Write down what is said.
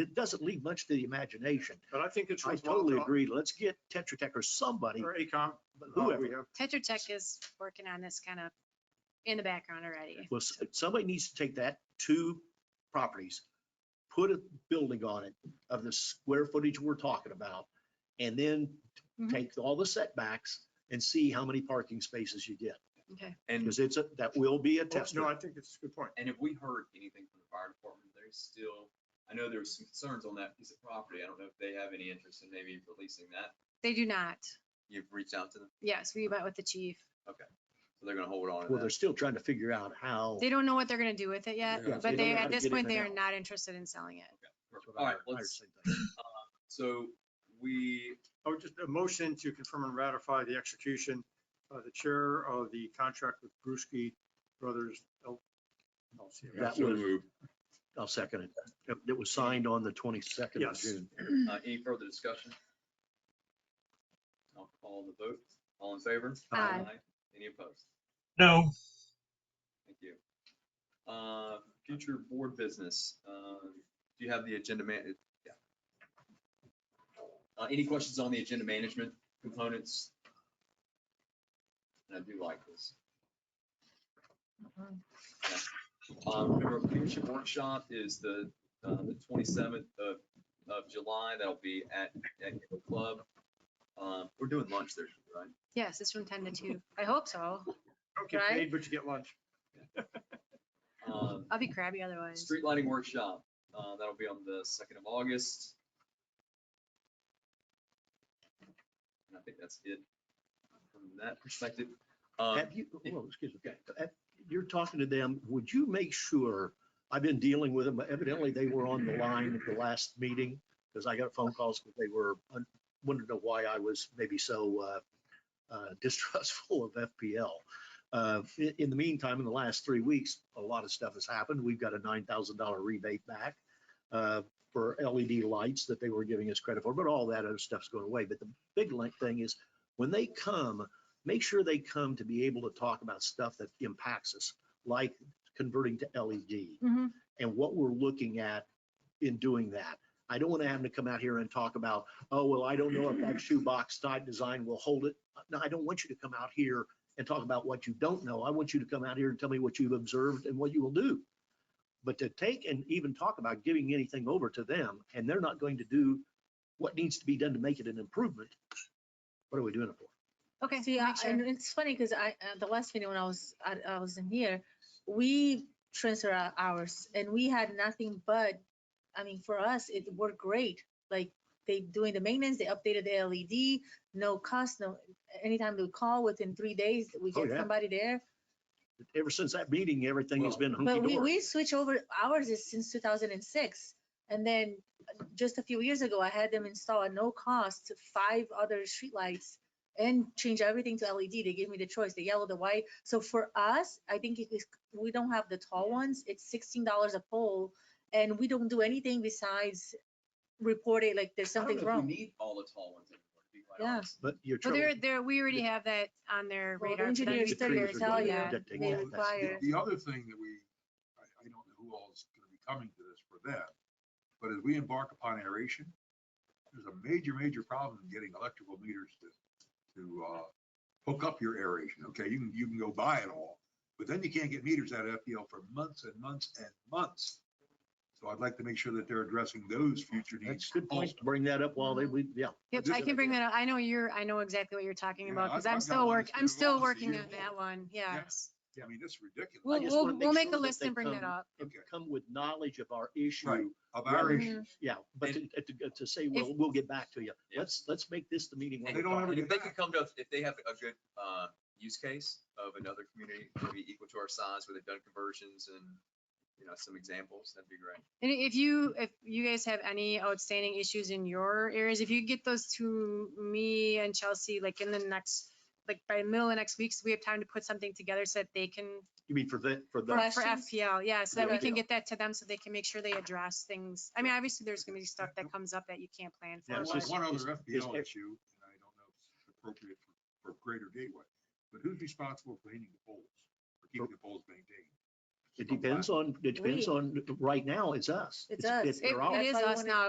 it doesn't leave much to the imagination. But I think it's. I worthwhile totally talk- agree. Let's get Tetra Tech or somebody, Or ACOM, whoever. whoever. Tetra Tech is working on this kind of in the background already. Well, s- somebody needs to take that two properties, put a building on it of the square footage we're talking about, and then Mm-hmm. Mhm. take all the setbacks and see how many parking spaces you get. Okay. And, Because it's, a that will be a Well, test. Oh, No, I think it's a good point. and if we heard anything from the fire department, there's still, I know there was some concerns on that piece of property. I don't know if they have any interest in maybe releasing that. They do not. You've reached out to them, Yes, we met with the chief. so they're gonna hold on to Well, they're that. still trying to figure out how. They don't know what they're gonna do with it yet, Yeah, but don't they, know how at to this get in point, and they are out. not interested in selling it. All right, let's, so we, Oh, just a motion to confirm and ratify the execution by the chair of the contract with Brewski Brothers L- LLC. Yeah. That so was- moved. I'll second it. It- It was signed on the twenty-second of Yes. June. Uh, any further discussion? I'll call the vote. All in favor? Aye. Any opposed? No, Thank you. Uh, future board business, uh, do you have the agenda man? yeah. Uh, any questions on the agenda management components? And I do like this. Um, remember, leadership workshop is the, uh, the twenty-seventh of, of July. That'll be at, at the club. Um, we're doing lunch there, right? Yes, it's from ten to two. I hope so. Okay, Right? paid, but you get lunch. Um, I'll be crabby otherwise. Street lighting workshop, uh, that'll be on the second of August. And I think that's it from that perspective. Um, Have you, yeah. well, excuse me, Have- you're talking to them, would you make sure, I've been dealing with them, but evidently they were on the line at the last meeting, because I got phone calls, because they were, un- wanted to know why I was maybe so uh, uh, distrustful of FPL. Uh, i- In the meantime, in the last three weeks, a lot of stuff has happened. We've got a $9,000 rebate back uh, for LED lights that they were giving us credit for, but all that other stuff's going away. But the big link thing is, when they come, make sure they come to be able to talk about stuff that impacts us, like converting to LED Mhm. and what we're looking at in doing that. I don't want to have them to come out here and talk about, oh, well, I don't know if that shoebox type design will hold it. No, I don't want you to come out here and talk about what you don't know. I want you to come out here and tell me what you've observed and what you will do. But to take and even talk about giving anything over to them, and they're not going to do what needs to be done to make it an improvement, what are we doing it for? Okay. See, make I- sure. and it's funny because I, uh, the last meeting when I was, I- I was in here, we transfer our hours and we had nothing but, I mean, for us, it worked great. Like they doing the maintenance, they updated the LED, no cost, no, anytime they call, within three days, we Oh, get yeah. somebody there. Ever since that meeting, everything has been hunky But we, dory. we switch over hours is since two thousand and six. And then uh, just a few years ago, I had them install at no cost five other streetlights and change everything to LED. They gave me the choice, the yellow, the white. So for us, I think it is, we don't have the tall ones. It's sixteen dollars a pole. And we don't do anything besides report it like there's I don't know something if we wrong. Need all the tall ones anymore, to be quite Yeah. honest. But you're. Well, trouble- they're, they're, we already have that on their Well, the radar. for them engineers to study do will that. tell you Yeah. that they They want. That's- require. The other thing that we, I, I don't know who all's gonna be coming to this for that, but as we embark upon aeration, there's a major, major problem in getting electrical meters to, to, uh, hook up your aeration, okay? You can, you can go buy it all, but then you can't get meters out of FPL for months and months and months. So I'd like to make sure that they're addressing those future That's needs a good point. also. Bring that up while they, mm-hmm. we, yeah. Yep, Just- I can bring that up. I know you're, I know exactly what you're talking Yeah, about I've- because I've I'm got still one work, that's been I'm still around since working on years old. that one. Yeah. Yes. I mean, this is ridiculous. We'll, just we'll, wanna make we'll make sure a that list they and bring come- that up. and Okay. Come with knowledge of our issue. Right. Of our Rather- issue, Yeah, but to, uh, to- to say, well, we'll get back to you. Yeah. Let's, let's make this the meeting. when And They we don't talk. have and a if they good could come to us, if they have a good, uh, use case of another community, maybe equal to our size, where they've done conversions and, you know, some examples, that'd be great. And if you, if you guys have any outstanding issues in your areas, if you get those to me and Chelsea, like in the next, like by the middle of next week, so we have time to put something together so that they can, You mean for the, for the, for Questions? FPL, yeah, so that we can Yeah. get that to them so they can make sure they address things. I mean, obviously, there's gonna be stuff that comes up that you can't plan for. Yeah, Well, it's but- There's just- one other it's- it's FPL ev- issue, and I don't know if it's appropriate for, for Greater Gateway, but who's responsible for painting the poles, for keeping the poles maintained? It depends on, it depends on, right now, it's us. It's us. It they're out. it is That's why I us wanna- now.